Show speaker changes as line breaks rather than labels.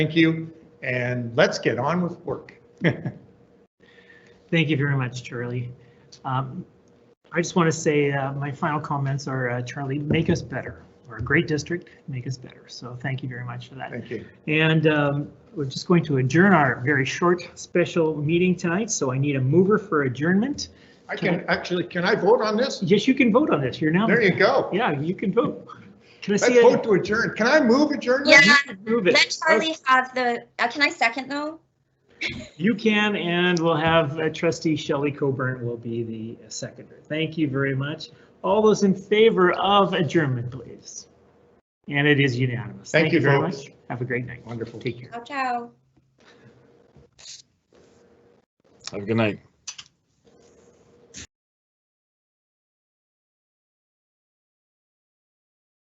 Thank you, and let's get on with work.
Thank you very much, Charlie. Um, I just want to say, uh, my final comments are, uh, Charlie, make us better. We're a great district, make us better. So thank you very much for that.
Thank you.
And um, we're just going to adjourn our very short special meeting tonight, so I need a mover for adjournment.
I can, actually, can I vote on this?
Yes, you can vote on this. You're now,
There you go.
yeah, you can vote. Can I
Let's
see
vote
it?
to adjourn. Can I move
Yeah,
adjournment?
Move
let
it.
Charlie have the, uh, can I second though?
You can, and we'll have uh, trustee Shelley Coburn will be the seconder. Thank you very much. All those in favor of adjournment, please. And it is unanimous.
Thank you,
very
folks.
much. Have a great night.
Oh,
Wonderful.
Take care.
Ciao, ciao.
Have a good night.